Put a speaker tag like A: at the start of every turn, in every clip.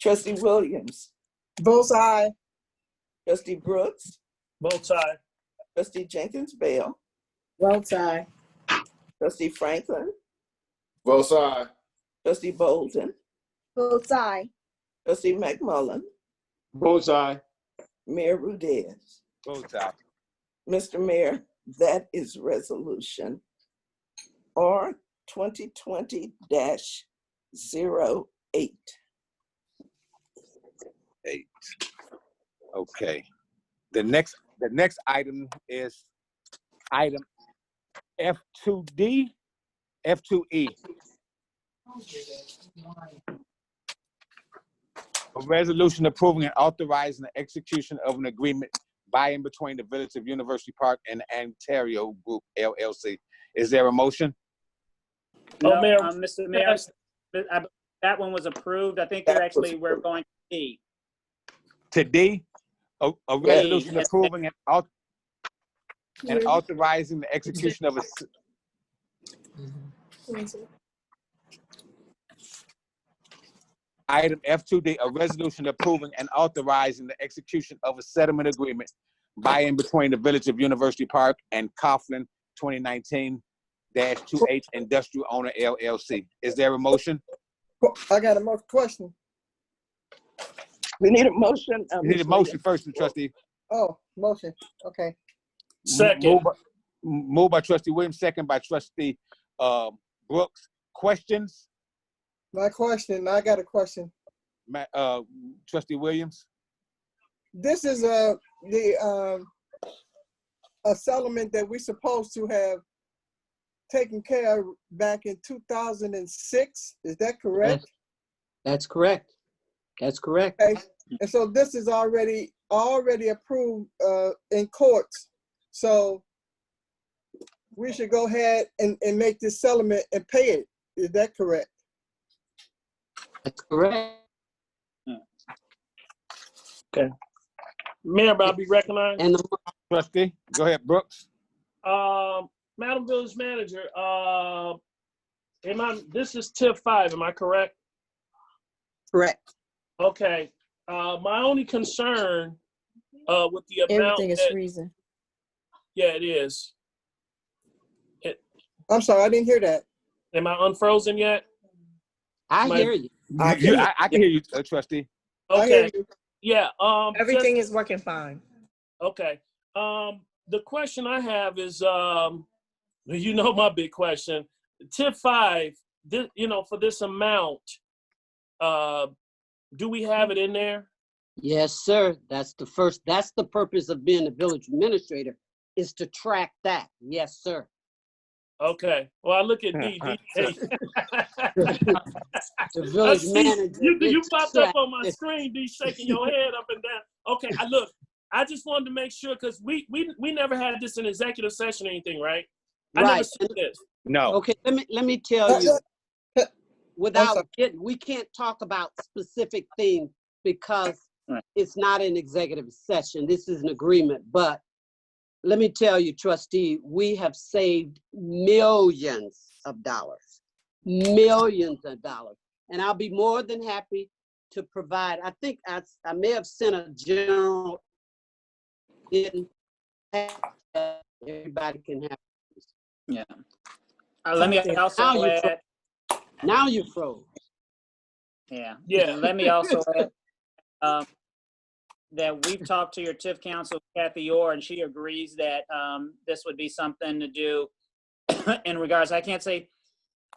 A: Trustee Williams,
B: Both aye.
A: Trustee Brooks,
C: Both aye.
A: Trustee Jenkins Bale,
B: Both aye.
A: Trustee Franklin,
D: Both aye.
A: Trustee Bolden,
B: Both aye.
A: Trustee McMullen,
D: Both aye.
A: Mayor Rudez.
D: Both aye.
A: Mr. Mayor, that is resolution R twenty twenty 8
E: eight. Okay. The next, the next item is item F2D, F2E. A resolution approving and authorizing the execution of an agreement by and between the Village of University Park and Ontario Group LLC. Is there a motion?
C: Oh,
F: No,
C: Mayor-
F: um, Mr. Mayor, I- that one was approved. I think
A: That
F: they're
A: was
F: actually, we're
A: approved.
F: going to E. D.
E: Today, a, a resolution approving and au- and authorizing the execution of a s- Item F2D, a resolution approving and authorizing the execution of a settlement agreement by and between the Village of University Park and Coughlin 2019-2H Industrial Owner LLC. Is there a motion?
B: I got a more question.
A: We need a motion. uh,
E: We Need a
A: Mr.
E: motion first, trustee.
B: Oh, motion. Okay.
C: Second.
E: Moved by- Moved by trustee Williams, second by trustee uh, Brooks. Questions?
B: My question, I got a question.
E: Ma- uh, Trustee Williams?
B: This is a, the, um, a settlement that we supposed to have taken care of back in two thousand and six. Is that correct?
G: That's correct. That's correct.
B: Okay, and so this is already, already approved, uh, in courts. So we should go ahead and, and make this settlement and pay it. Is that correct?
G: That's correct.
C: Mayor, may I be recognized?
G: And the
E: Trustee, go ahead, Brooks.
C: Um, Madam Village Manager, uh, am I, this is tip five, am I correct?
B: Correct.
C: Okay, uh, my only concern, uh, with the amount
H: Everything is
C: that,
H: freezing.
C: yeah, it is.
B: I'm sorry, I didn't hear that.
C: Am I unfrozen yet?
G: I
C: My-
G: hear you.
E: I can I I can hear you, uh, trustee.
H: Oh,
B: I hear
C: Okay,
B: you.
C: yeah, um. just-
I: Everything is working fine.
C: Okay. Um, the question I have is, um, you know, my big question. Tip five, this, you know, for this amount, uh, do we have it in there?
G: Yes, sir. That's the first, that's the purpose of being a village administrator is to track that. Yes, sir.
C: Okay. Well, I look at DD.
G: The
C: I
G: village
C: see-
G: manager.
C: You, you
G: is to
C: popped up
G: track
C: on my
G: this.
C: screen, D, shaking your head up and down. Okay, I look. I just wanted to make sure because we, we we never had this in executive session or anything, right? I never
G: Right.
C: seen this.
E: No.
G: Okay, let me, let me
B: Uh,
G: tell you, without
B: sorry.
G: getting, we can't talk about specific things because
F: Right.
G: it's not an executive session. This is an agreement, but let me tell you, trustee, we have saved millions of dollars. Millions of dollars. And I'll be more than happy to provide, I think I, s- I may have sent a general in, everybody can have.
F: Uh, let me
G: Okay, now
F: also
G: you fro-
F: add,
G: Now you froze.
F: yeah.
C: Yeah.
F: And let me also add, um, that we've talked to your TIF council, Kathy Orr, and she agrees that, um, this would be something to do in regards, I can't say,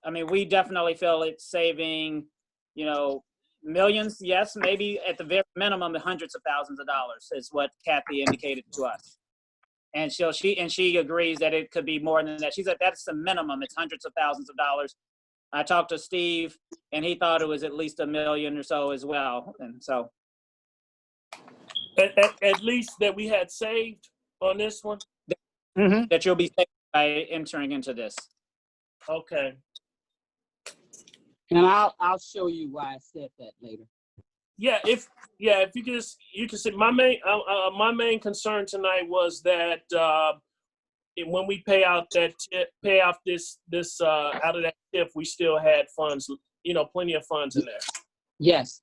F: I mean, we definitely feel it's saving, you know, millions, yes, maybe at the very minimum, hundreds of thousands of dollars is what Kathy indicated to us. And she'll, she, and she agrees that it could be more than that. She's like, that's the minimum, it's hundreds of thousands of dollars. I talked to Steve, and he thought it was at least a million or so as well. And so,
C: At, at, at least that we had saved on this one.
E: Mm-hmm.
F: that you'll be safe by entering into this.
C: Okay.
G: And I'll, I'll show you why I said that later.
C: Yeah, if yeah, if you could just you can see my main uh, uh, my main concern tonight was that uh, it- when we pay out that tip, pay off this this uh, out of that tip, we still had funds, you know, plenty of funds in there.
G: Yes,